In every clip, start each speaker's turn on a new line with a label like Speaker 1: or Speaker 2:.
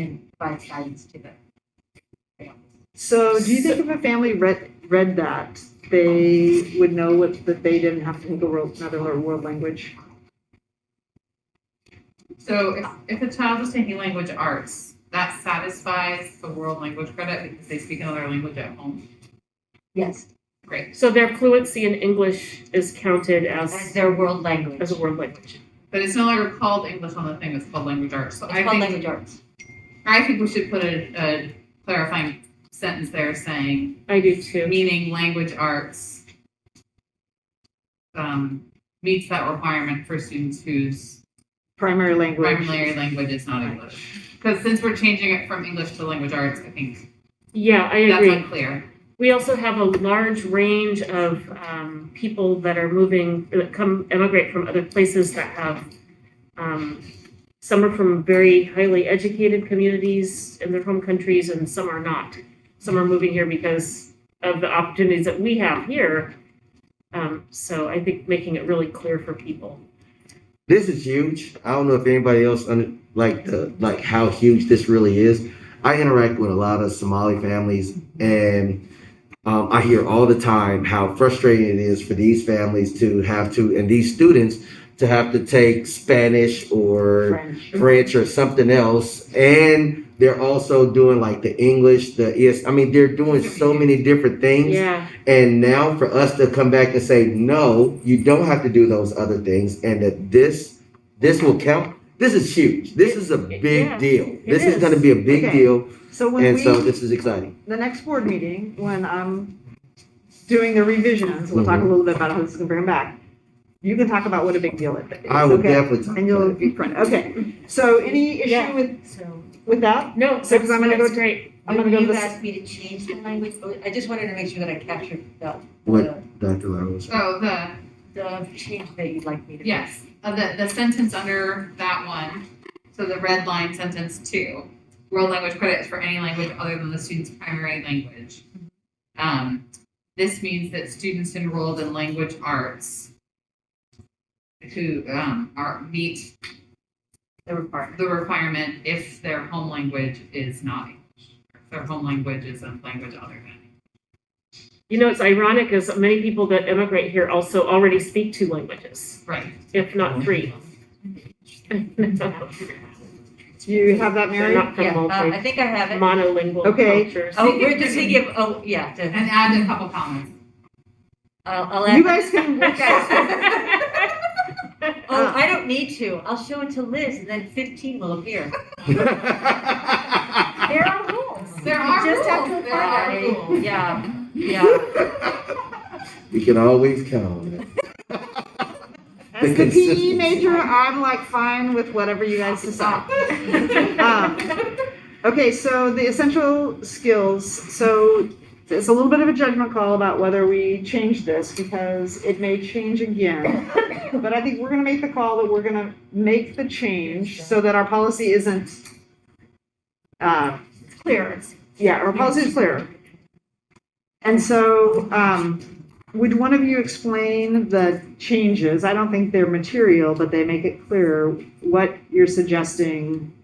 Speaker 1: and provide guidance to them.
Speaker 2: So do you think if a family read, read that, they would know what, that they didn't have to take a world, another world language?
Speaker 3: So if, if a child is taking language arts, that satisfies the world language credit because they speak another language at home.
Speaker 1: Yes,
Speaker 3: Great.
Speaker 4: So their fluency in English is counted
Speaker 1: as
Speaker 4: as,
Speaker 1: their world language.
Speaker 4: as a world language.
Speaker 3: But it's no longer called English on the thing, it's called language arts. So
Speaker 1: It's
Speaker 3: I
Speaker 1: called
Speaker 3: think,
Speaker 1: language arts.
Speaker 3: I think we should put a, a clarifying sentence there saying,
Speaker 4: I do too.
Speaker 3: meaning language arts um, meets that requirement for students whose
Speaker 2: Primary language?
Speaker 3: primary language is not English. Because since we're changing it from English to language arts, I think
Speaker 4: Yeah, I
Speaker 3: that's
Speaker 4: agree.
Speaker 3: unclear.
Speaker 4: We also have a large range of um, people that are moving, that come emigrate from other places that have, um, some are from very highly educated communities in their home countries and some are not. Some are moving here because of the opportunities that we have here. Um, so I think making it really clear for people.
Speaker 5: this is huge. I don't know if anybody else under, like the like how huge this really is. I interact with a lot of Somali families, and um, I hear all the time how frustrating it is for these families to have to and these students to have to take Spanish or
Speaker 2: French.
Speaker 5: French or something else, and they're also doing like the English, the ES. I mean, they're doing so many different things.
Speaker 4: Yeah,
Speaker 5: And now for us to come back and say, no, you don't have to do those other things and that this this will count. This is huge. This is a big
Speaker 4: Yeah,
Speaker 5: deal. This is,
Speaker 2: is.
Speaker 5: going to be a big
Speaker 2: Okay.
Speaker 5: deal.
Speaker 2: So when
Speaker 5: And
Speaker 2: we,
Speaker 5: so this is exciting.
Speaker 2: the next board meeting, when I'm doing the revisions, we'll
Speaker 5: Mm-hmm.
Speaker 2: talk a little bit about how this is gonna bring them back. You can talk about what a big deal it is,
Speaker 5: I will
Speaker 2: okay?
Speaker 5: definitely talk
Speaker 2: And you'll
Speaker 5: about
Speaker 2: be print, okay. So any
Speaker 4: Yeah.
Speaker 2: issue with,
Speaker 1: So
Speaker 2: with that?
Speaker 4: no,
Speaker 2: So, 'cause I'm gonna go
Speaker 4: that's
Speaker 2: to-
Speaker 4: great.
Speaker 2: I'm gonna go to
Speaker 1: you
Speaker 2: this,
Speaker 1: asked me to change the language. Oh, I just wanted to make sure that I captured the, the,
Speaker 5: What? it, Dr. Lowell.
Speaker 3: So the
Speaker 1: the change that you'd like me to. make.
Speaker 3: Yes, uh, the, the sentence under that one, so the red line sentence two, world language credits for any language other than the student's primary language. Um, this means that students enrolled in language arts who, um, are, meet
Speaker 1: The requirement.
Speaker 3: the requirement if their home language is not English. If Their home language is a language other than.
Speaker 4: You know, it's ironic is many people that immigrate here also already speak two languages,
Speaker 3: Right.
Speaker 4: if not three.
Speaker 2: do you have that,
Speaker 4: They're
Speaker 2: Mary?
Speaker 4: not
Speaker 1: Yeah,
Speaker 4: from
Speaker 1: uh,
Speaker 4: multi,
Speaker 1: I think I have it.
Speaker 4: monolingual
Speaker 2: Okay.
Speaker 4: cultures.
Speaker 1: Oh, we're just thinking of, oh, yeah,
Speaker 3: And
Speaker 1: the-
Speaker 3: add a couple comments.
Speaker 1: I'll, I'll add.
Speaker 2: You guys can work out.
Speaker 1: Oh, I don't need to. I'll show it to Liz and then fifteen will appear. There are rules.
Speaker 3: There are
Speaker 1: just have
Speaker 3: rules,
Speaker 1: to
Speaker 3: there are
Speaker 1: apply.
Speaker 3: rules.
Speaker 1: Yeah, yeah.
Speaker 5: we can always count on it.
Speaker 2: As the PE major, I'm like fine with whatever you guys decide. Um, Okay, so the essential skills, so it's a little bit of a judgment call about whether we change this because it may change again. But I think we're gonna make the call that we're gonna make the change so that our policy isn't, uh,
Speaker 1: Clear.
Speaker 2: yeah, our policy is clear. And so, um, would one of you explain the changes? I don't think they're material, but they make it clear what you're suggesting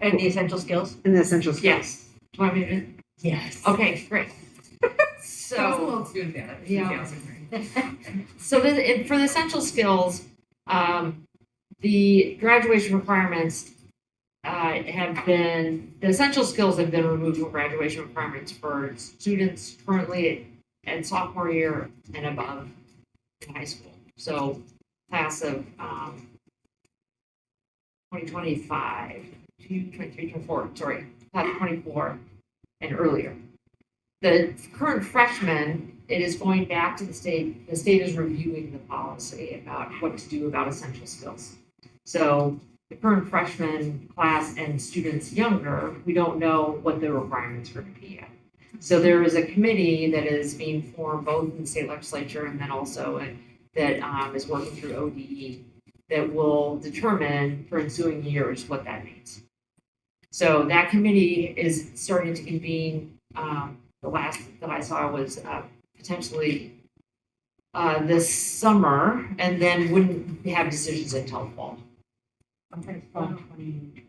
Speaker 1: And the essential skills?
Speaker 2: in the essential skills.
Speaker 4: Yes.
Speaker 6: Want me to-
Speaker 1: Yes.
Speaker 6: Okay, great.
Speaker 3: That was a
Speaker 6: So,
Speaker 3: little too bad.
Speaker 6: Yeah. so the, it- for the essential skills, um, the graduation requirements uh, have been, the essential skills have been removed from graduation requirements for students currently in sophomore year and above in high school. So class of, um, 2025, 2023, 24, sorry, class of 24 and earlier. The current freshmen, it is going back to the state, the state is reviewing the policy about what to do about essential skills. So the current freshman class and students younger, we don't know what the requirements are going to be yet. So there is a committee that is being formed both in the state legislature and then also in- that um, is working through ODE that will determine for ensuing years what that means. So that committee is starting to convene um, the last that I saw was uh, potentially uh, this summer, and then wouldn't have decisions until fall.
Speaker 1: I'm gonna phone twenty.